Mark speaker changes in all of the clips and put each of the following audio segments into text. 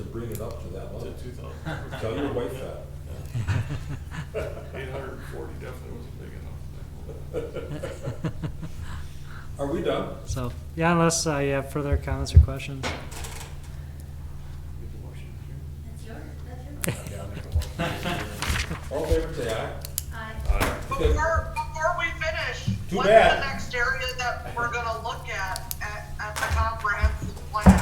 Speaker 1: it up to that
Speaker 2: Was
Speaker 1: level.
Speaker 2: it two thousand?
Speaker 1: Tell your wife that.
Speaker 2: Eight hundred and forty definitely wasn't big enough.
Speaker 1: Are we done?
Speaker 3: So, yeah, unless uh, you have further comments or questions.
Speaker 4: That's your, that's your.
Speaker 1: All in favor, say aye.
Speaker 4: Aye.
Speaker 1: Okay.
Speaker 5: Before, before we finish,
Speaker 1: Too
Speaker 5: what's
Speaker 1: bad.
Speaker 5: the next area that we're gonna look at, at, at the comprehensive plan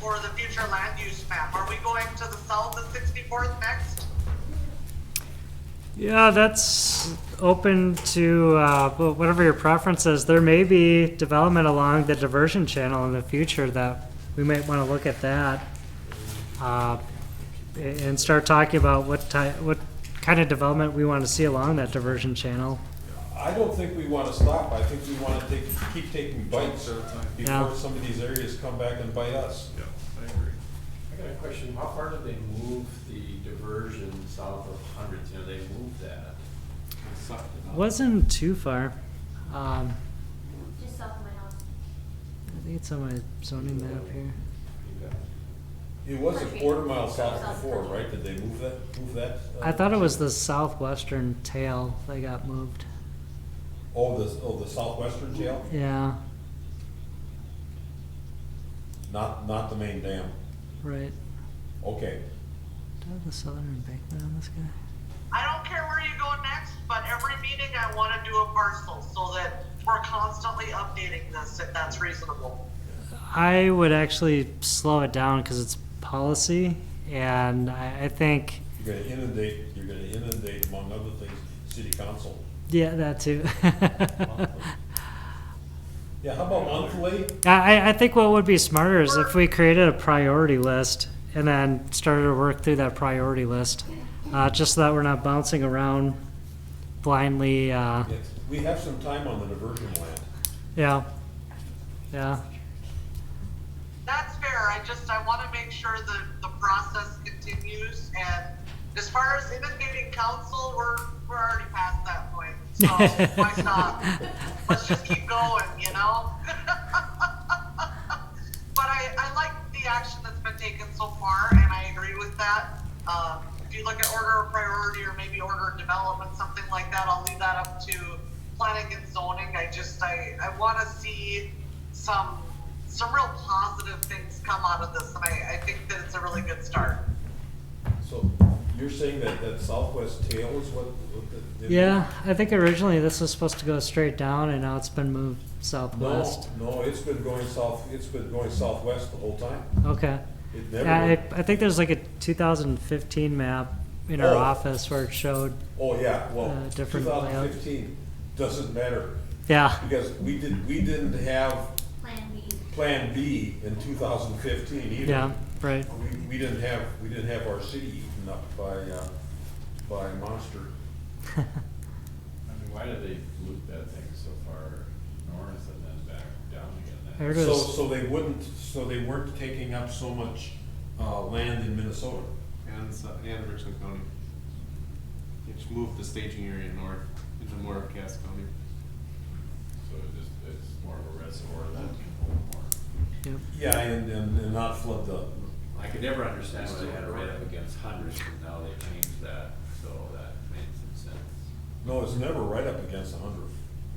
Speaker 5: for the future land use map? Are we going to the south of sixty-fourth next?
Speaker 3: Yeah, that's open to uh, wh- whatever your preference is. There may be development along the diversion channel in the future that we might want to look at that uh, a- and start talking about what type, what kind of development we want to see along that diversion channel.
Speaker 1: I don't think we wanna stop, I think we wanna take, keep taking bites
Speaker 3: Yeah.
Speaker 1: before some of these areas come back and bite us.
Speaker 2: Yeah, I agree.
Speaker 6: I got a question, how far did they move the diversion south of Hundreds, you know, they moved that? They sucked it up.
Speaker 3: Wasn't too far. Um,
Speaker 4: Just south of my house.
Speaker 3: I think it's on my zoning map here.
Speaker 6: You got-
Speaker 1: It was a quarter mile south before, right, did they move that, move that? uh,
Speaker 3: I thought it was the southwestern tail that got moved.
Speaker 1: Oh, the, oh, the southwestern jail,
Speaker 3: Yeah,
Speaker 1: not, not the main dam,
Speaker 3: right.
Speaker 1: okay.
Speaker 3: Do I have the southern embankment on this guy?
Speaker 5: I don't care where you go next, but every meeting I wanna do a parcel so that we're constantly updating this, if that's reasonable.
Speaker 3: I would actually slow it down because it's policy, and I, I think,
Speaker 1: You're gonna inundate, you're gonna inundate, among other things, city council.
Speaker 3: yeah, that too.
Speaker 1: Yeah, how about monthly?
Speaker 3: I, I- I think what would be smarter is if we created a priority list and then started to work through that priority list, uh, just so that we're not bouncing around blindly, uh,
Speaker 1: Yes, we have some time on the diversion land.
Speaker 3: yeah, yeah.
Speaker 5: That's fair. I just, I want to make sure that the process continues. And as far as inundating council, we're, we're already past that point. So why stop? Let's just keep going, you know? But I, I like the action that's been taken so far and I agree with that. Um, if you look at order of priority or maybe order of development, something like that, I'll leave that up to planning and zoning. I just, I, I want to see some, some real positive things come out of this, and I, I think that it's a really good start.
Speaker 1: So you're saying that, that southwest tail is what? what the- the-
Speaker 3: Yeah, I think originally this was supposed to go straight down, and now it's been moved
Speaker 1: No,
Speaker 3: southwest.
Speaker 1: no, it's been going south, it's been going southwest the whole time.
Speaker 3: Okay.
Speaker 1: It
Speaker 3: Yeah,
Speaker 1: never,
Speaker 3: I, I think there's like a 2015 map in our
Speaker 1: Oh.
Speaker 3: office where it showed.
Speaker 1: oh yeah, well,
Speaker 3: Uh,
Speaker 1: two
Speaker 3: different layout.
Speaker 1: thousand fifteen, doesn't matter,
Speaker 3: Yeah,
Speaker 1: because we did, we didn't have
Speaker 4: Plan B.
Speaker 1: Plan B in two thousand fifteen either.
Speaker 3: yeah, right.
Speaker 1: We, we didn't have, we didn't have our city eaten up by, uh, by monster.
Speaker 6: I mean, why did they loop that thing so far north and then back down again? That-
Speaker 3: I heard it
Speaker 1: So,
Speaker 3: was,
Speaker 1: so they wouldn't, so they weren't taking up so much, uh, land in Minnesota.
Speaker 7: and, s- and Richland County. Which moved the staging area north into more of Cass County.
Speaker 6: So it just, it's more of a reservoir than more.
Speaker 3: yep.
Speaker 1: Yeah, and, and, and not flood the,
Speaker 8: I could never understand why they had it right up against hundreds, and now they changed that, so that made some sense.
Speaker 1: no, it's never right up against a hundred.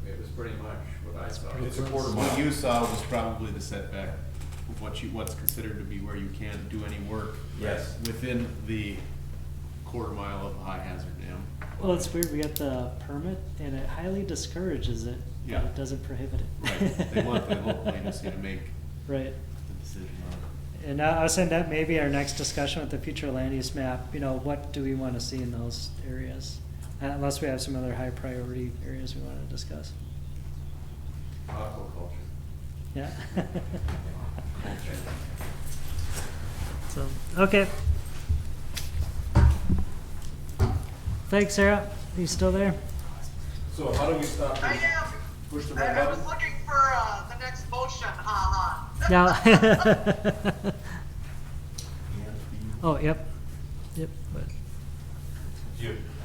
Speaker 8: It was pretty much what I thought.
Speaker 1: It's a quarter
Speaker 7: What
Speaker 1: mile.
Speaker 7: you saw was probably the setback, of what you, what's considered to be where you can't do any work.
Speaker 1: Yes.
Speaker 7: Within the quarter mile of high hazard dam.
Speaker 3: Well, it's weird. We got the permit, and it highly discourages it,
Speaker 7: but Yeah.
Speaker 3: but it
Speaker 7: it
Speaker 3: doesn't prohibit it.
Speaker 7: Right, they want the local agency to make
Speaker 3: Right.
Speaker 7: the decision on it.
Speaker 3: And I I was saying that maybe our next discussion with the future land use map, you know, what do we want to see in those areas? Uh, Unless we have some other high priority areas we want to discuss.
Speaker 8: Aquaculture.
Speaker 3: Yeah. So, okay. Thanks, Sarah. Are you still there?
Speaker 1: So how do we stop
Speaker 5: I
Speaker 1: this?
Speaker 5: am,
Speaker 1: Push the
Speaker 5: I
Speaker 1: red
Speaker 5: I was
Speaker 1: button?
Speaker 5: looking for, uh, the next motion, ha ha.
Speaker 3: No. Oh, yep, yep, but,
Speaker 1: You.